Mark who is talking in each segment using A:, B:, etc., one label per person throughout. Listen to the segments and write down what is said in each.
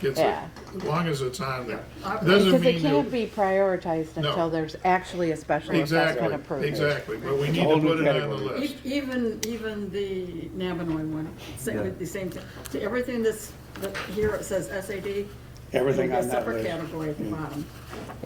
A: gets it,
B: Yeah.
A: as long as it's on there.
C: Yeah.
A: Doesn't
B: Because it
A: mean
B: can't
A: you,
B: be prioritized
A: No.
B: until there's actually a special assessment approved.
A: exactly, exactly, but we need
D: whole
A: to
D: new
A: put it on the
D: category.
A: list.
C: E- Even, even the Navinoy one, same, with the same, thing. to everything that's, that here it says SAD.
D: Everything
C: there'll
D: on
C: be a
D: that
C: Separate
D: list. Mm.
C: category at the bottom.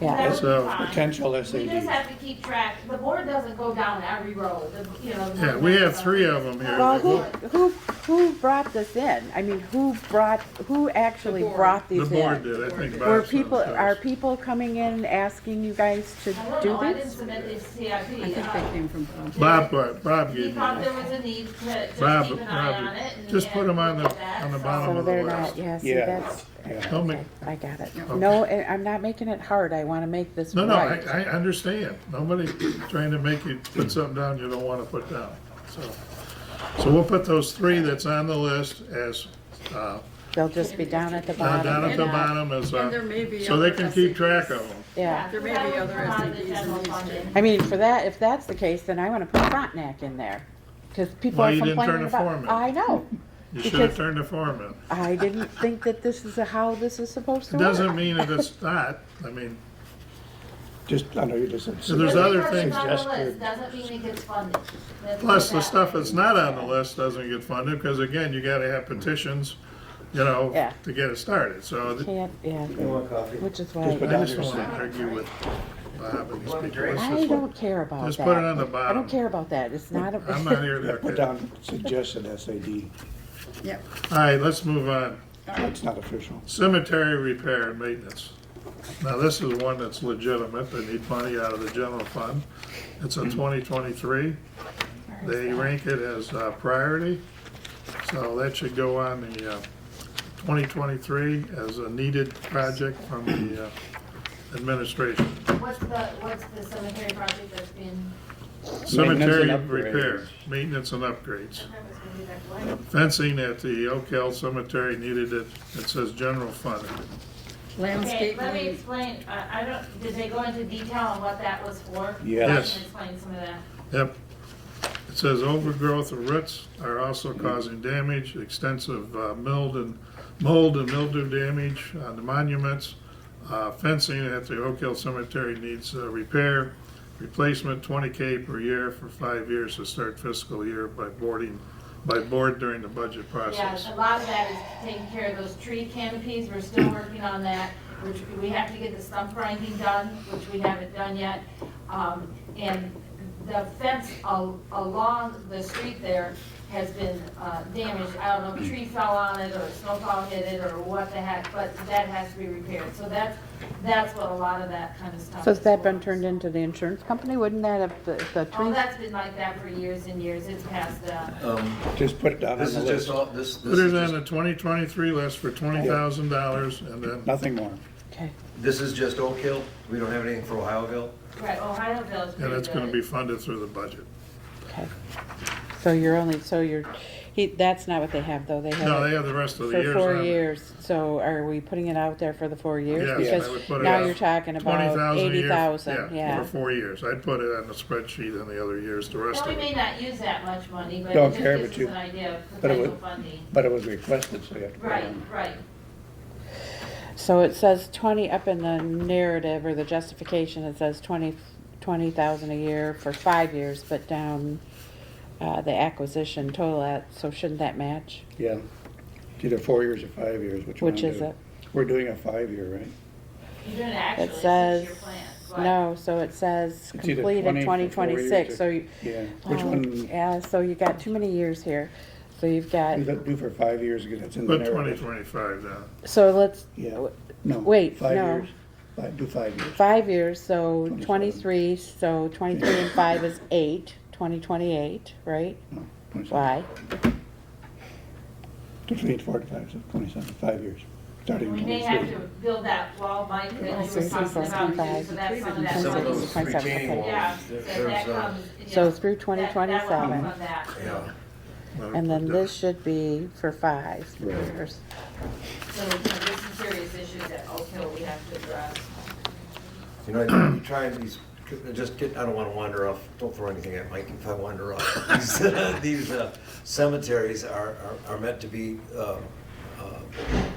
B: Yeah,
E: That would be
A: So-
E: fine.
D: Potential
E: We just
D: SAD.
E: have to keep track, the board doesn't go down every road, the, you know. the
A: Yeah,
E: board
A: we
E: doesn't
A: have
E: go-
A: three of them here.
B: well,
A: that
B: who,
A: look-
B: who, who brought this in? I mean, who brought, who actually
C: The board.
B: brought
A: The
B: these
A: board
B: in?
A: did, I think Bob
B: Were
A: said
B: people,
A: it was.
B: are people coming in asking you guys to
E: I don't
B: do
E: know, I didn't
B: this?
E: submit the
C: I think
E: CIP.
C: that
E: Uh,
C: came from, um,
A: Bob,
C: Bob.
A: Bob- Bob
E: He
A: gave me,
E: thought there
A: that.
E: was a need to just keep
A: Bob-
E: an eye
A: Bob,
E: on it. and-
A: just put 'em on the-
E: and that,
A: on the
E: so-
A: bottom
B: So
A: of the
B: they're
A: list.
B: not, yeah, see,
D: Yeah.
B: that's,
D: Yeah.
A: help me,
B: I got it.
C: Yeah.
B: No, I- I'm not making it hard, I wanna make this
A: no, no, I,
B: right.
A: I understand, nobody's trying to make you put something down you don't wanna put down, so. So we'll put those three that's on the list as, uh,
B: They'll just be down at the
A: down
B: bottom.
A: down at
B: and
A: the
B: not-
A: bottom as,
C: And there may
A: uh,
C: be
A: so they
C: other
A: can keep
C: SADs.
A: track of them.
B: Yeah.
C: There may
E: that
C: be
E: would
C: other
E: come out of the
C: SADs and
E: general
C: these
E: fund.
C: too.
B: I mean, for that, if that's the case, then I wanna put Frontenac in there, cause people
A: Why
B: are
A: you didn't turn
B: complaining
A: the form
B: about.
A: in?
B: I know,
A: You should have
B: Because-
A: turned the form in.
B: I didn't think that this is how this is supposed to
A: It
B: work.
A: doesn't mean that it's not, I mean,
D: Just, I know you just said.
A: So there's
E: Just
A: other
E: because
A: things
E: it's on the
D: just
E: list
D: to-
E: Doesn't mean it gets funded. Let's
A: plus
E: do
A: the
E: that.
A: stuff that's not on the list doesn't get funded, because again, you gotta have petitions, you know,
B: Yeah.
A: to get it started, so. th-
B: Can't, yeah, which is
D: Just put
B: why,
D: down-
A: I just don't wanna argue with Bob and these people.
F: Um,
A: Let's
B: I
A: just-
B: don't care about that.
A: Just put it on the
B: I
A: bottom.
B: don't care about that, it's not
A: I'm not
B: a,
A: here to,
D: Put
A: okay. All
D: down suggested SAD.
C: Yeah,
A: right, let's move on.
D: That's not official.
A: Cemetery repair and maintenance. Now, this is one that's legitimate, they need money out of the general fund. It's
D: Hmm.
A: in twenty twenty-three. They rank it as uh, priority, so that should go on the uh, twenty twenty-three as a needed project from the uh, administration.
E: What's the, what's the cemetery project that's been?
A: Cemetery
D: Maintenance and upgrades.
A: repair, maintenance and upgrades. Fencing at the Oak Hill Cemetery needed it, it says general fund.
E: Okay, let me
C: landscaping,
E: explain, I, I don't, did they go into detail on what that was for?
D: Yes.
E: I
A: Yes.
E: can explain some of that.
A: Yep. It says overgrowth of roots are also causing damage, extensive uh, mold and, mold and mildew damage on the monuments. Uh, Fencing at the Oak Hill Cemetery needs uh, repair, replacement twenty K per year for five years to start fiscal year by boarding, by board during the budget process.
E: Yeah, a lot of that is taking care of those tree canopies, we're still working on that, which we have to get the stump grinding done, which we haven't done yet. Um, and the fence al- along the street there has been, uh, damaged, I don't know, if a tree fell on it, or a snowplow hit it, or what the heck, but that has to be repaired, so that's, that's what a lot of that kind of stuff.
B: so has that been
E: for.
B: turned into the insurance company, wouldn't that have, the, the
E: Oh,
B: trees?
E: that's been like that for years and years, it's past the.
F: Um,
D: Just put it down on
F: This
D: the
F: is just
D: list.
F: all, this,
A: Put
F: this
A: it
F: is
A: on
F: just,
A: the twenty twenty-three list for twenty thousand dollars and then
D: Nothing more.
B: Okay,
F: this is just Oak Hill. We don't have anything for Ohioville.
E: Right, Ohio Bill's.
A: Yeah,
E: pretty
A: that's gonna
E: good.
A: be funded through the budget.
B: okay. So you're only, so you're, he, that's not what they have, though, they have.
A: No,
B: it
A: they have the rest of the
B: For
A: years
B: four
A: on it.
B: years, so are we putting it out there for the four years?
A: Yes, I would put
B: Because
A: it
B: now
A: out.
B: you're talking about
A: 20,000 a year.
B: eighty thousand,
A: For
B: yeah.
A: four years. I'd put it on the spreadsheet in the other years, the rest
E: Well,
A: of
E: we may
A: it.
E: not use that much money, but
D: Don't
E: it
D: care,
E: just
D: but
E: gives
D: you-
E: us an idea of
D: but it would-
E: potential funding.
D: But it was requested, so you have to put it
E: Right,
D: on.
E: right.
B: So it says twenty, up in the narrative or the justification, it says twenty, twenty thousand a year for five years, but down, uh, the acquisition total at, so shouldn't that match?
D: Yeah. It's either four years or five years, which one?
B: Which
D: do?
B: is it?
D: We're doing a five-year, right?
E: You're doing actually,
B: It
E: it's
B: says,
E: your plan. but-
B: no, so it says
D: It's either
B: completed
D: 20 for four
B: twenty
D: years
B: twenty-six,
D: or-
B: so you.
D: Yeah. Which
B: Oh,
D: one,
B: Yeah, so you got too many years here, so you've got,
D: is it due for five years? Because it's in the
A: Put twenty
D: narrative.
A: twenty-five down.
B: so let's,
D: Yeah. No.
B: Wait,
D: Five
B: no.
D: years. Fi- Do five years.
B: Five years, so
D: 27.
B: twenty-three, so twenty-three and five is eight, twenty twenty-eight, right?
D: No, 27.
B: Why?
D: Between four to five, so twenty-seven, five years, starting in
E: We may have
D: twenty-three.
E: to build that wall, Mike, that you were
B: Six,
E: talking
B: six,
E: about, too,
B: five.
E: so that's some of that.
F: Some of
E: funding.
F: those
B: 27,
F: retaining
B: okay.
E: Yeah,
F: walls,
E: that-
F: there's,
E: that
F: uh,
E: comes, yeah.
B: So through 2027.
E: That- that will come from that.
F: yeah.
A: Well,
B: And then
A: put
B: this should be for five
D: Right.
B: years.
E: So, you know, there's some serious issues at Oak Hill we have to address.
F: You know, I'm trying these, just get, I don't wanna wander off, don't throw anything at Mike if I wander off. These, uh, These uh, cemeteries are, are- are meant to be, um, uh,